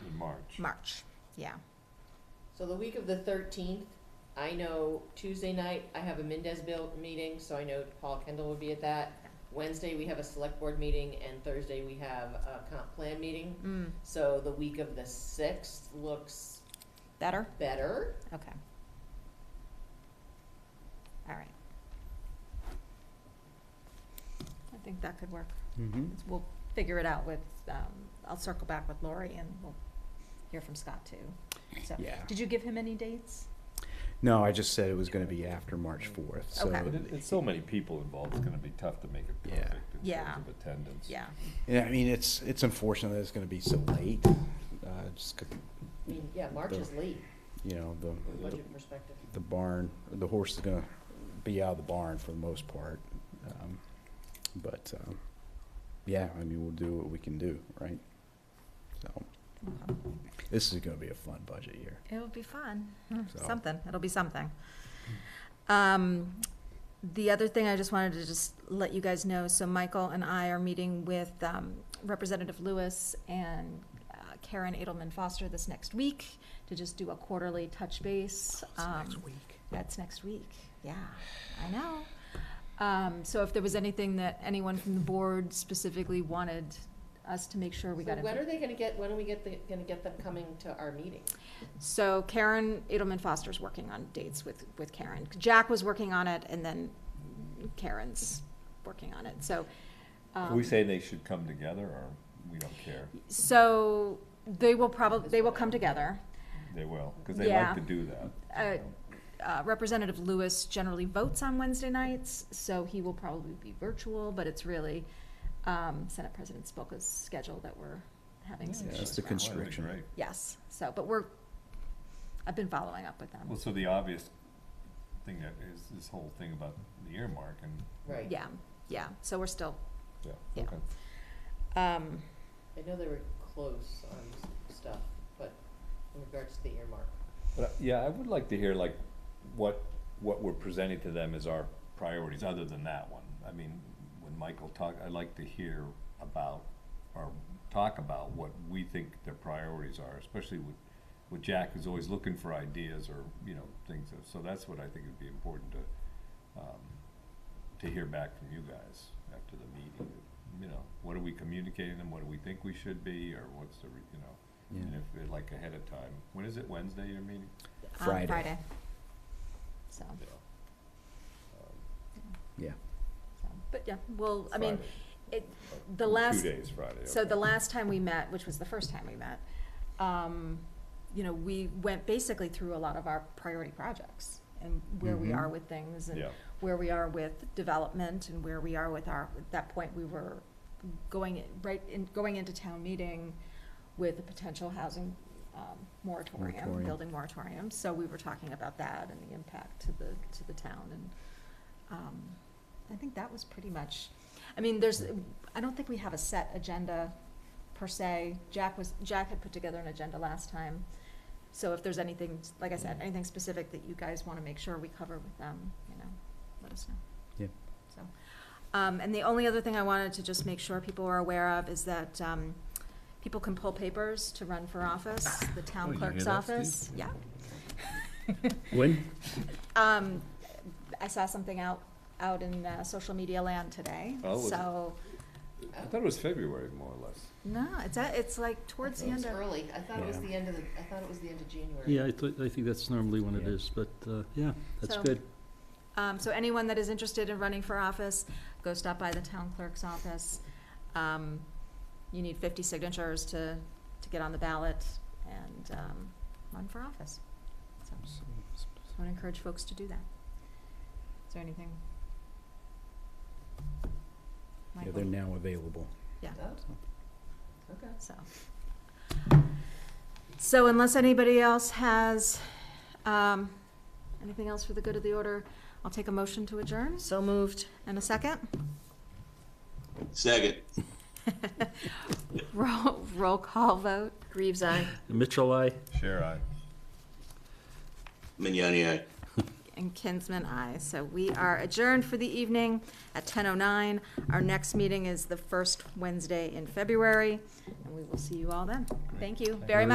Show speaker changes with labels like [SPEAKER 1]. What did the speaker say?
[SPEAKER 1] March, yeah.
[SPEAKER 2] So the week of the thirteenth, I know Tuesday night, I have a Mendez bill meeting, so I know Paul Kendall will be at that. Wednesday, we have a select board meeting, and Thursday, we have a comp plan meeting.
[SPEAKER 1] Mm,
[SPEAKER 2] So the week of the sixth looks
[SPEAKER 1] better?
[SPEAKER 2] better.
[SPEAKER 1] Okay. All right. I think that could work.
[SPEAKER 3] Mm-hmm.
[SPEAKER 1] It's- We'll figure it out with, um, I'll circle back with Lori and we'll hear from Scott too. So,
[SPEAKER 3] Yeah.
[SPEAKER 1] did you give him any dates?
[SPEAKER 3] No, I just said it was going to be after March fourth. So
[SPEAKER 1] Okay.
[SPEAKER 4] But it, it's so many people involved, it's gonna be tough to make it
[SPEAKER 3] Yeah.
[SPEAKER 4] perfect in
[SPEAKER 1] Yeah.
[SPEAKER 4] terms of attendance.
[SPEAKER 1] Yeah,
[SPEAKER 3] yeah, I mean it's it's unfortunate that it's going to be so late. Uh, just 'cause,
[SPEAKER 2] I mean, yeah, March is late
[SPEAKER 3] you know
[SPEAKER 2] from a
[SPEAKER 3] the the,
[SPEAKER 2] budget perspective.
[SPEAKER 3] the barn, the horse is going to be out of the barn for the most part. Um, but um, yeah, I mean we'll do what we can do, right? So
[SPEAKER 1] Okay.
[SPEAKER 3] this is going to be a fun budget year.
[SPEAKER 1] it'll be fun, Hmm,
[SPEAKER 3] So-
[SPEAKER 1] something, it'll be something. Um, the other thing I just wanted to just let you guys know, so Michael and I are meeting with, um, Representative Lewis and uh, Karen Edelman Foster this next week to just do a quarterly touch base. um,
[SPEAKER 3] week.
[SPEAKER 1] That's next week. Yeah, I know. Um, so if there was anything that anyone from the board specifically wanted us to make sure we
[SPEAKER 2] So
[SPEAKER 1] got.
[SPEAKER 2] when
[SPEAKER 1] info-
[SPEAKER 2] are they gonna get, when are we get, the- gonna get them coming to our meeting?
[SPEAKER 1] So Karen Edelman Foster's working on dates with, with Karen. Jack was working on it and then Karen's working on it, so.
[SPEAKER 4] Are
[SPEAKER 1] um,
[SPEAKER 4] we saying they should come together, or we don't care?
[SPEAKER 1] So they will probably, they will come together.
[SPEAKER 4] They will, because they
[SPEAKER 1] Yeah.
[SPEAKER 4] like to do that.
[SPEAKER 1] Uh,
[SPEAKER 4] you know.
[SPEAKER 1] uh, Representative Lewis generally votes on Wednesday nights, so he will probably be virtual, but it's really um, Senate President Spolka's schedule that we're having some
[SPEAKER 3] Yeah,
[SPEAKER 1] issues
[SPEAKER 3] that's the
[SPEAKER 1] around.
[SPEAKER 3] constraint.
[SPEAKER 4] That'd be
[SPEAKER 3] constriction.
[SPEAKER 4] great.
[SPEAKER 1] Yes, so, but we're, I've been following up with them.
[SPEAKER 4] Well, so the obvious thing that is this whole thing about the earmark and.
[SPEAKER 2] Right.
[SPEAKER 1] Yeah, yeah, so we're still,
[SPEAKER 4] Yeah,
[SPEAKER 1] Yeah.
[SPEAKER 4] okay.
[SPEAKER 1] um,
[SPEAKER 2] I know they were close on s- stuff, but in regards to the earmark.
[SPEAKER 4] But, uh, yeah, I would like to hear like what, what we're presenting to them as our priorities, other than that one. I mean, when Michael talk, I'd like to hear about, or talk about what we think their priorities are, especially with, with Jack who's always looking for ideas or, you know, things. So that's what I think would be important to, um, to hear back from you guys after the meeting. You know, what are we communicating them? What do we think we should be, or what's the, re- you know?
[SPEAKER 3] Yeah.
[SPEAKER 4] And if, like, ahead of time, when is it, Wednesday, your meeting?
[SPEAKER 1] on
[SPEAKER 3] Friday.
[SPEAKER 1] Friday. So,
[SPEAKER 4] Yeah.
[SPEAKER 3] Yeah.
[SPEAKER 1] so, but yeah, well, I mean,
[SPEAKER 4] Friday.
[SPEAKER 1] it,
[SPEAKER 4] In
[SPEAKER 1] the last,
[SPEAKER 4] Two days, Friday.
[SPEAKER 1] So the
[SPEAKER 4] okay.
[SPEAKER 1] last time we met, which was the first time we met, um, you know, we went basically through a lot of our priority projects and where we
[SPEAKER 3] Mhm.
[SPEAKER 1] are with things and
[SPEAKER 4] Yeah,
[SPEAKER 1] where we are with development and where we are with our, at that point, we were going in, right in, going into town meeting with a potential housing, um, moratorium,
[SPEAKER 3] Moratorium.
[SPEAKER 1] building moratorium, so we were talking about that and the impact to the, to the town and, um, I think that was pretty much, I mean, there's, I don't think we have a set agenda per se. Jack was, Jack had put together an agenda last time, so if there's anything, like I said, anything specific that you guys wanna make sure we cover with them, you know, let us know.
[SPEAKER 3] Yeah.
[SPEAKER 1] So, um, and the only other thing I wanted to just make sure people are aware of is that, um, people can pull papers to run for office, the
[SPEAKER 4] Oh,
[SPEAKER 1] town
[SPEAKER 4] you
[SPEAKER 1] clerk's
[SPEAKER 4] hear that, Steve?
[SPEAKER 1] office, yeah.
[SPEAKER 3] When?
[SPEAKER 1] Um, I saw something out, out in, uh, social media land today,
[SPEAKER 4] Oh, was it?
[SPEAKER 1] so,
[SPEAKER 4] I thought it was February, more or less.
[SPEAKER 1] no, it's, a- it's like towards the
[SPEAKER 2] It was
[SPEAKER 1] end of,
[SPEAKER 2] early. I thought it was
[SPEAKER 3] Yeah.
[SPEAKER 2] the end of the, I thought it was the end of January.
[SPEAKER 5] Yeah, I thi- I think that's normally when it
[SPEAKER 3] Yeah.
[SPEAKER 5] is, but, uh, yeah, that's
[SPEAKER 1] So-
[SPEAKER 5] good.
[SPEAKER 1] um, so anyone that is interested in running for office, go stop by the town clerk's office. Um, you need fifty signatures to, to get on the ballot and, um, run for office. So, so I would encourage folks to do that. Is there anything?
[SPEAKER 3] Yeah,
[SPEAKER 1] Michael?
[SPEAKER 3] they're now available.
[SPEAKER 2] Oh, okay.
[SPEAKER 1] So. So unless anybody else has, um, anything else for the good of the order, I'll take a motion to adjourn. So moved. And a second?
[SPEAKER 6] Second.
[SPEAKER 1] Roll, roll call vote.
[SPEAKER 2] Reeves, aye.
[SPEAKER 5] Mitchell, I.
[SPEAKER 4] Sure, I.
[SPEAKER 6] Mignani, aye.
[SPEAKER 1] And Kinsman, aye. So we are adjourned for the evening at ten oh nine. Our next meeting is the first Wednesday in February, and we will see you all then. Thank you very much.